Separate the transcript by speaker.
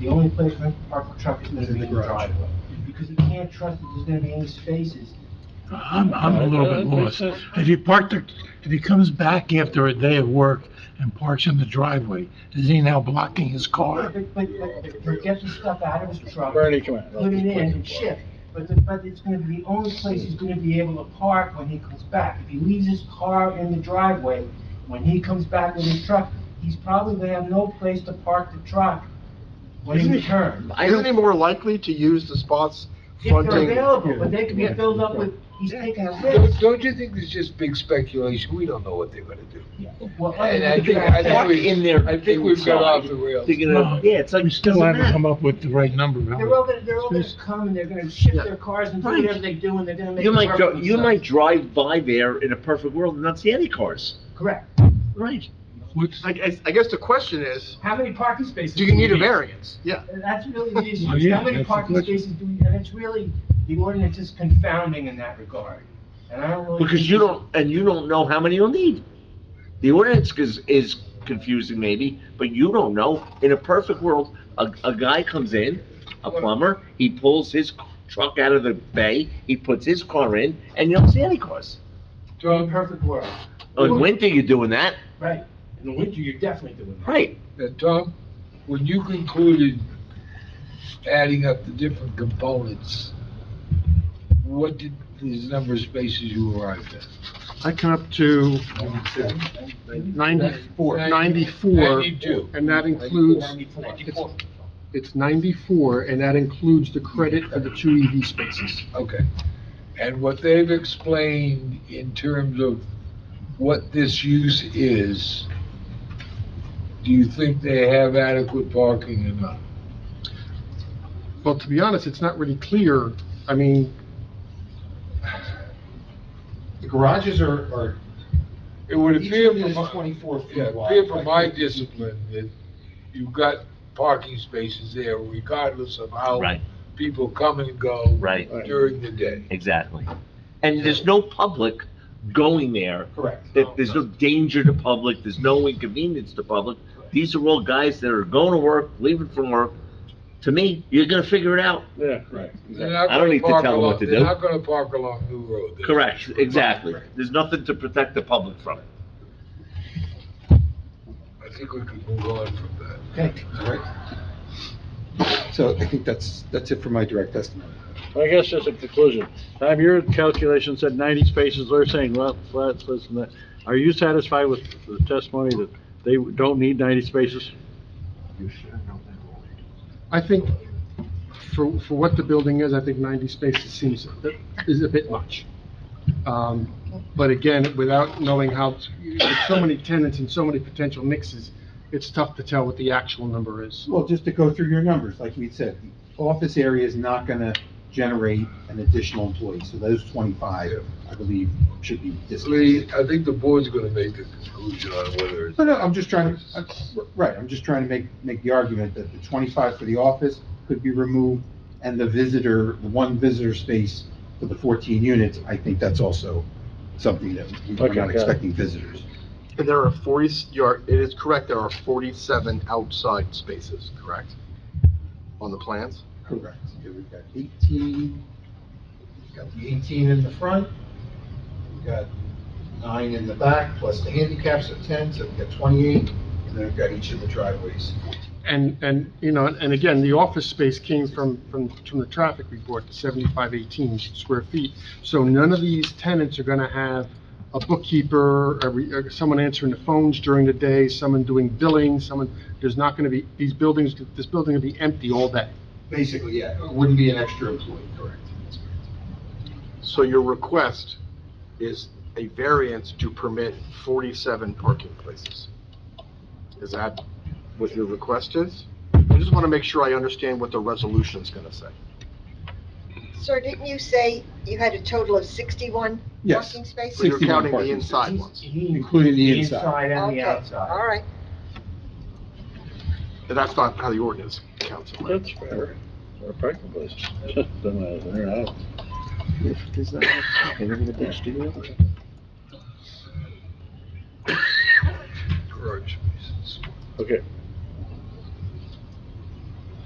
Speaker 1: The only place I can park a truck is gonna
Speaker 2: Is in
Speaker 1: be
Speaker 2: the
Speaker 1: in the
Speaker 2: garage.
Speaker 1: driveway, because you can't trust that there's gonna be any spaces.
Speaker 3: I'm, I'm a little bit lost. If he parked the, if he comes back after a day of work and parks in the driveway, is he now blocking his car?
Speaker 1: But, but, but, but get the stuff out of his truck,
Speaker 2: Bernie, come
Speaker 1: put it in
Speaker 2: on.
Speaker 1: and shift. But the, but it's gonna be, the only place he's gonna be able to park when he comes back. If he leaves his car in the driveway, when he comes back with his truck, he's probably gonna have no place to park the truck when he
Speaker 2: Isn't he-
Speaker 1: returns.
Speaker 2: Isn't he more likely to use the spots
Speaker 1: If they're
Speaker 2: fronting?
Speaker 1: available, but they could be filled up with, he's taking a
Speaker 4: Don't-
Speaker 1: risk.
Speaker 4: Don't you think it's just big speculation? We don't know what they're gonna do.
Speaker 1: Well,
Speaker 4: And I think, I think we, I think we've got off the rails.
Speaker 3: No, We still haven't come up with the right number,
Speaker 1: They're all
Speaker 3: Howard.
Speaker 1: gonna, they're all gonna come and they're gonna shift their cars and do
Speaker 5: Right.
Speaker 1: whatever they do and they're gonna make.
Speaker 5: You
Speaker 1: it
Speaker 5: might,
Speaker 1: work
Speaker 5: dri-
Speaker 1: for
Speaker 5: you might
Speaker 1: themselves.
Speaker 5: drive by there in a perfect world and not see any cars.
Speaker 1: Correct.
Speaker 5: Right.
Speaker 3: What's,
Speaker 2: I, I- I guess the question is,
Speaker 1: How many parking spaces?
Speaker 2: do you need a
Speaker 1: variance?
Speaker 2: variance? Yeah.
Speaker 1: That's really the issue,
Speaker 3: Oh,
Speaker 1: is
Speaker 3: yeah,
Speaker 1: how many
Speaker 3: that's the
Speaker 1: parking
Speaker 3: question.
Speaker 1: spaces do we, and it's really, the ordinance is confounding in that regard. And I don't really.
Speaker 5: Because
Speaker 1: think
Speaker 5: you
Speaker 1: it's-
Speaker 5: don't, and you don't know how many you'll need. The ordinance is, is confusing maybe, but you don't know. In a perfect world, a, a guy comes in, a plumber, he pulls his truck out of the bay, he puts his car in, and you don't see any cars. Oh,
Speaker 1: In a perfect world,
Speaker 5: In winter, you're doing that,
Speaker 1: right, in the winter, you're definitely doing that.
Speaker 5: right?
Speaker 4: Now, Tom, when you concluded adding up the different components, what did these number of spaces you arrived at?
Speaker 6: I come up to
Speaker 4: Ninety-
Speaker 6: 94, 94,
Speaker 4: Ninety-two.
Speaker 6: and that includes,
Speaker 1: Ninety-four.
Speaker 6: it's 94, and that includes the credit for the two EV spaces.
Speaker 4: Okay. And what they've explained in terms of what this use is, do you think they have adequate parking or not?
Speaker 6: Well, to be honest, it's not really clear, I mean,
Speaker 7: The garages are, are,
Speaker 4: It would
Speaker 7: each
Speaker 4: appear
Speaker 7: of it
Speaker 4: from,
Speaker 7: is
Speaker 4: my-
Speaker 7: twenty-four
Speaker 4: yeah,
Speaker 7: feet
Speaker 4: it
Speaker 7: wide.
Speaker 4: appear from my
Speaker 7: Like,
Speaker 4: discipline that you've got parking spaces there regardless of how
Speaker 5: Right.
Speaker 4: people come and go
Speaker 5: Right.
Speaker 4: during the day.
Speaker 5: Exactly. And there's no public going there
Speaker 7: Correct.
Speaker 5: that there's no danger to public, there's no inconvenience to public. These are all guys that are going to work, leaving from work. To me, you're gonna figure it out.
Speaker 7: Yeah, correct.
Speaker 4: They're not
Speaker 5: I don't
Speaker 4: gonna
Speaker 5: need to
Speaker 4: park
Speaker 5: tell them what
Speaker 4: along-
Speaker 5: to
Speaker 4: They're
Speaker 5: do.
Speaker 4: not gonna park along New Road. They're-
Speaker 5: Correct, exactly. There's nothing to protect the public from it.
Speaker 4: I think we can move on from that.
Speaker 1: Okay,
Speaker 2: So I think that's, that's it for my direct estimate.
Speaker 8: I guess that's a conclusion. Tom, your calculation said ninety spaces, they're saying, well, flats, this and that. Are you satisfied with the testimony that they don't need ninety spaces?
Speaker 6: I think for, for what the building is, I think 90 spaces seems, is a bit much. Um, But again, without knowing how, with so many tenants and so many potential mixes, it's tough to tell what the actual number is.
Speaker 2: Well, just to go through your numbers, like we said, the office area is not gonna generate an additional employee, so those twenty-five, I believe, should be
Speaker 4: Lee,
Speaker 2: discounted.
Speaker 4: I think the board's gonna make a conclusion on whether it's.
Speaker 2: No, no, I'm just trying to, I'm- right, I'm just trying to make, make the argument that the twenty-five for the office could be removed, and the visitor, the one visitor space for the fourteen units, I think that's also something that we're
Speaker 8: Okay, got
Speaker 2: not
Speaker 8: it.
Speaker 2: expecting visitors.
Speaker 9: And there are 40, you are, it is correct, there are 47 outside spaces, correct? On the plans?
Speaker 2: Correct. Yeah, We've got eighteen,
Speaker 7: We've got the eighteen in the front, we've got nine in the back, plus the handicaps are ten, so we've got twenty-eight, and then we've got each of the driveways.
Speaker 6: And, and, you know, and again, the office space came from, from, from the traffic report, the seventy-five eighteen square feet. So none of these tenants are gonna have a bookkeeper, a re- uh, someone answering the phones during the day, someone doing billing, someone, there's not gonna be, these buildings, this building will be empty all day.
Speaker 7: Basically, yeah, it wouldn't be an extra employee, correct? That's correct.
Speaker 9: So your request is a variance to permit 47 parking places? Is that what your request is? I just want to make sure I understand what the resolution's going to say.
Speaker 10: Sir, didn't you say you had a total of 61
Speaker 2: Yes.
Speaker 10: parking spaces?
Speaker 9: So you're
Speaker 2: 61
Speaker 9: counting the
Speaker 2: parking
Speaker 9: inside
Speaker 1: He's-
Speaker 9: ones.
Speaker 1: he-
Speaker 2: Including the inside.
Speaker 1: and the
Speaker 10: Okay, All
Speaker 1: outside.
Speaker 10: right.
Speaker 9: And That's not how the ordinance counts it.
Speaker 8: That's fair. Or parking places.
Speaker 4: Garage spaces.
Speaker 8: Okay,